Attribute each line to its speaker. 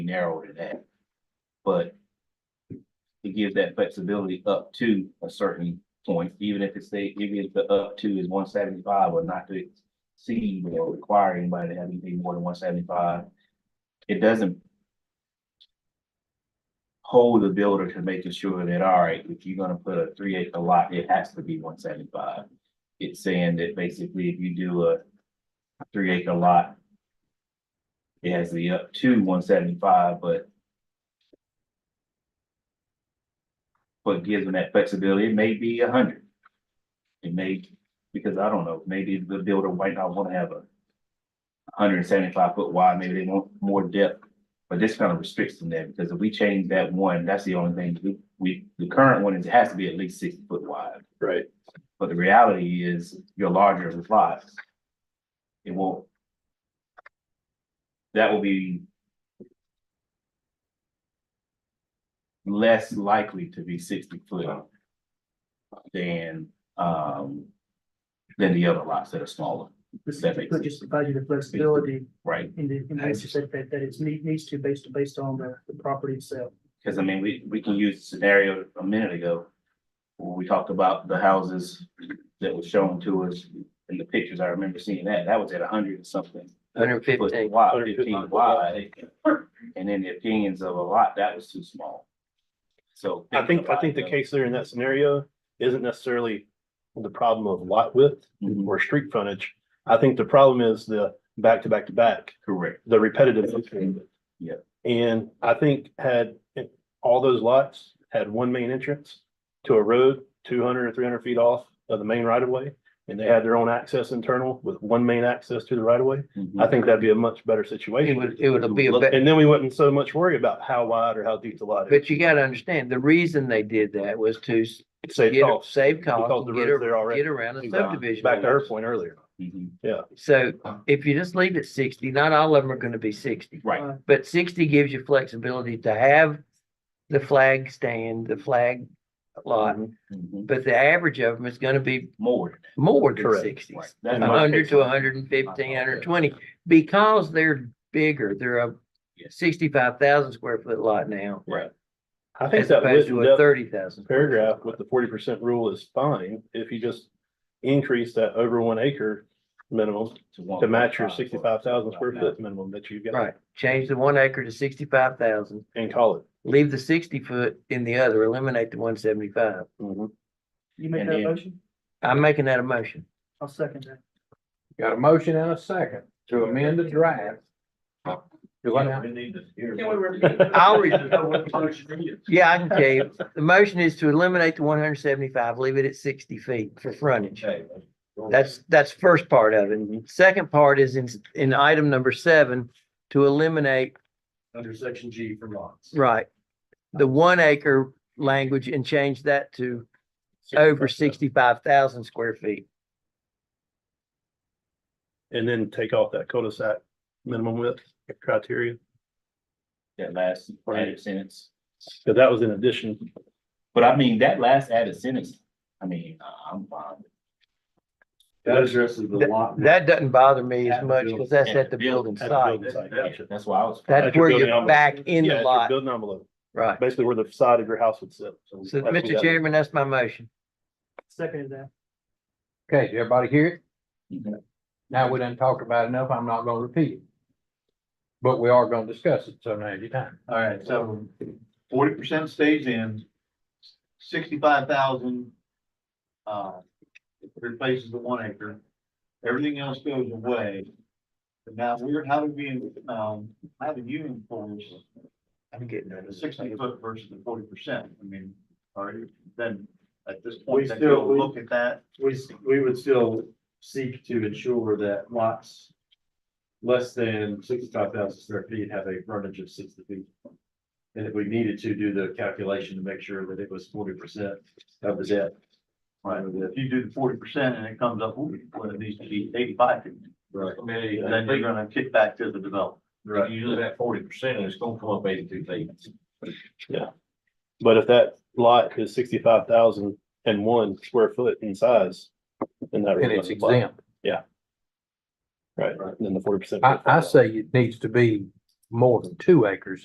Speaker 1: narrow to that. But it gives that flexibility up to a certain point, even if it's say, even if the up to is one seventy-five or not to exceed or require anybody to have anything more than one seventy-five. It doesn't hold the builder to making sure that, all right, if you're gonna put a three acre lot, it has to be one seventy-five. It's saying that basically if you do a three acre lot, it has to be up to one seventy-five, but but gives them that flexibility, it may be a hundred. It may, because I don't know, maybe the builder might not wanna have a hundred and seventy-five foot wide, maybe they want more depth but this kind of restricts them there, because if we change that one, that's the only thing, we- we, the current one is, it has to be at least six foot wide.
Speaker 2: Right.
Speaker 1: But the reality is, you're larger with lots. It won't. That will be. Less likely to be sixty foot. Than, um, than the other lots that are smaller,
Speaker 3: This
Speaker 1: That makes
Speaker 3: would just provide you the flexibility
Speaker 1: right?
Speaker 3: in the, in the aspect that, that it's need, needs to based, based on the, the property itself.
Speaker 1: Cause I mean, we, we can use the scenario a minute ago. When we talked about the houses that was shown to us in the pictures, I remember seeing that, that was at a hundred and something.
Speaker 4: Hundred
Speaker 1: foot
Speaker 4: fifteen,
Speaker 1: Wide,
Speaker 2: 150.
Speaker 1: fifteen wide, and in the opinions of a lot, that was too small. So. Mhm.
Speaker 2: I think, I think the case there in that scenario isn't necessarily the problem of lot width
Speaker 1: Mhm.
Speaker 2: or street frontage. I think the problem is the back to back to back,
Speaker 1: Correct,
Speaker 2: the repetitive. nature of it.
Speaker 1: Yeah.
Speaker 2: And I think had all those lots had one main entrance to a road, two hundred or three hundred feet off of the main right of way. And they had their own access internal with one main access to the right of way. I
Speaker 1: Mhm.
Speaker 2: think that'd be a much better
Speaker 4: it
Speaker 2: situation.
Speaker 4: would, it would be a bet,
Speaker 2: And then we wouldn't so much worry about how wide or how deep the lot is.
Speaker 4: but you gotta understand, the reason they did that was to s-
Speaker 2: Save
Speaker 4: get, a-
Speaker 2: costs.
Speaker 4: save
Speaker 2: Because
Speaker 4: costs,
Speaker 2: the
Speaker 4: and get,
Speaker 2: roads there
Speaker 4: a-
Speaker 2: already.
Speaker 4: get around a
Speaker 1: Exactly.
Speaker 4: subdivision.
Speaker 2: Back to her point earlier.
Speaker 1: Mhm.
Speaker 4: So if you just leave it sixty, not all of them are gonna be sixty,
Speaker 1: Right,
Speaker 4: but sixty gives you flexibility to have the flag stand, the flag lot,
Speaker 1: Mhm.
Speaker 4: but the average of them is gonna be
Speaker 1: more,
Speaker 4: more than
Speaker 2: Correct.
Speaker 4: sixty.
Speaker 1: right. That's
Speaker 4: A
Speaker 1: my
Speaker 4: hundred
Speaker 1: case.
Speaker 4: to hundred and fifteen, hundred and twenty, because they're bigger, they're a
Speaker 1: Yes.
Speaker 4: sixty-five thousand square foot lot now.
Speaker 1: Right.
Speaker 2: I think
Speaker 4: As
Speaker 2: that
Speaker 4: opposed to
Speaker 2: written
Speaker 4: a
Speaker 2: up
Speaker 4: thirty thousand.
Speaker 2: paragraph with the forty percent rule is fine if you just increase that over one acre minimum to match your sixty-five thousand square foot minimum that you've got
Speaker 4: Right, change the one acre to sixty-five thousand,
Speaker 2: and call it.
Speaker 4: leave the sixty foot in the other, eliminate the one seventy-five.
Speaker 3: You make
Speaker 1: And
Speaker 3: that
Speaker 1: then-
Speaker 3: motion?
Speaker 4: I'm making that a motion.
Speaker 3: I'll second that.
Speaker 5: Got a motion and a second to amend the draft. Do I now?
Speaker 4: I'll read Yeah, I can tell you, the motion is to eliminate the one hundred seventy-five, leave it at sixty feet for frontage. That's, that's first part of it. Second part is in, in item number seven, to eliminate,
Speaker 5: Under section G for lots.
Speaker 4: right, the one acre language and change that to over sixty-five thousand square feet.
Speaker 2: And then take off that cul-de-sac minimum width criteria,
Speaker 1: That last added sentence.
Speaker 2: because that was in addition.
Speaker 1: But I mean, that last added sentence, I mean, I'm fine. with
Speaker 5: That addresses the
Speaker 4: That-
Speaker 5: lot.
Speaker 4: That doesn't bother me
Speaker 5: At
Speaker 4: as
Speaker 5: the
Speaker 4: much
Speaker 5: building-
Speaker 4: because that's
Speaker 1: at
Speaker 4: at
Speaker 1: the
Speaker 4: the building
Speaker 2: at the
Speaker 4: site.
Speaker 2: building site.
Speaker 1: it. That's why I was.
Speaker 4: That's
Speaker 2: At your
Speaker 4: where
Speaker 2: building
Speaker 4: you're
Speaker 2: envelope.
Speaker 4: back in
Speaker 2: Yeah,
Speaker 4: the
Speaker 2: at your
Speaker 4: lot,
Speaker 2: Building envelope,
Speaker 4: right.
Speaker 2: basically where the side of your house would sit.
Speaker 4: So,
Speaker 2: that's what
Speaker 4: Mr.
Speaker 2: that-
Speaker 4: Chairman, that's my motion.
Speaker 3: Second that.
Speaker 5: Okay, did everybody hear it?
Speaker 1: Mhm.
Speaker 5: Now we done talked about it enough, I'm not gonna repeat it. But we are gonna discuss it, so now's your time.
Speaker 6: All right, so forty percent stays in, sixty-five thousand. Uh, replaces the one acre, everything else goes away. But now we're, how do we, um, how do you enforce
Speaker 4: I'm getting that.
Speaker 6: the sixty foot versus the forty percent? I mean, are you, then at this
Speaker 7: We
Speaker 6: point, then
Speaker 7: still-
Speaker 6: you'll look at that.
Speaker 7: we, s- we would still seek to ensure that lots less than sixty-five thousand square feet have a frontage of sixty feet. And if we needed to do the calculation to make sure that it was forty percent of the debt.
Speaker 6: Right, if you do the forty percent and it comes up, ooh, well, it needs to be eighty-five,
Speaker 7: Right.
Speaker 6: then you're gonna kick back to the developer.
Speaker 7: Right.
Speaker 5: you do that forty percent, it's gonna come up eighty-two feet.
Speaker 2: But if that lot is sixty-five thousand and one square foot in size. then that
Speaker 5: And it's
Speaker 2: would apply.
Speaker 5: exempt.
Speaker 2: Right, then the forty percent.
Speaker 5: I, I say it needs to be more than two acres